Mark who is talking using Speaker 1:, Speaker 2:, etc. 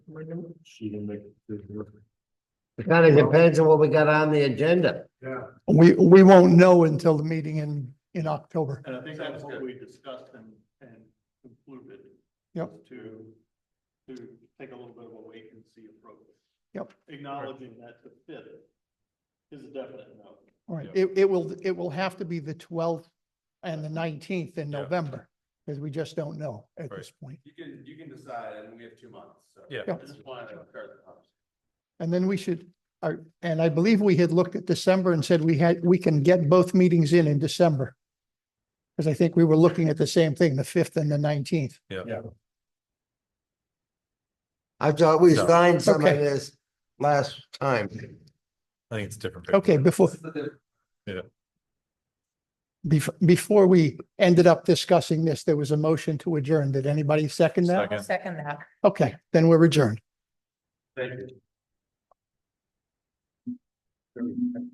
Speaker 1: She didn't make.
Speaker 2: It kind of depends on what we got on the agenda.
Speaker 1: Yeah,
Speaker 3: We, we won't know until the meeting in, in October.
Speaker 4: And I think
Speaker 1: Sounds
Speaker 4: that's what
Speaker 1: good.
Speaker 4: we discussed and, and concluded.
Speaker 3: Yep.
Speaker 4: was To, to take a little bit of a wait and see approach.
Speaker 3: Yep.
Speaker 4: Acknowledging that the fifth is a definite no.
Speaker 3: All right, it, it will, it will have to be the twelfth and the nineteenth in
Speaker 5: Yeah.
Speaker 3: November, because we just don't know at this point.
Speaker 1: you can, you can decide, and we have two months, so.
Speaker 5: Yeah.
Speaker 3: Yeah.
Speaker 1: I just wanted to start the conversation.
Speaker 3: And then we should, uh, and I believe we had looked at December and said we had, we can get both meetings in in December. Because I think we were looking at the same thing, the fifth and the nineteenth.
Speaker 2: I thought we
Speaker 5: No.
Speaker 2: signed some of
Speaker 3: Okay.
Speaker 2: this last time.
Speaker 5: I think it's different. paper.
Speaker 3: Okay, before,
Speaker 1: This is the diff-
Speaker 3: before, before we ended up discussing this, there was a motion to adjourn. Did anybody second that?
Speaker 5: Second.
Speaker 6: Second that.
Speaker 3: Okay, then we're adjourned.
Speaker 1: Thank you.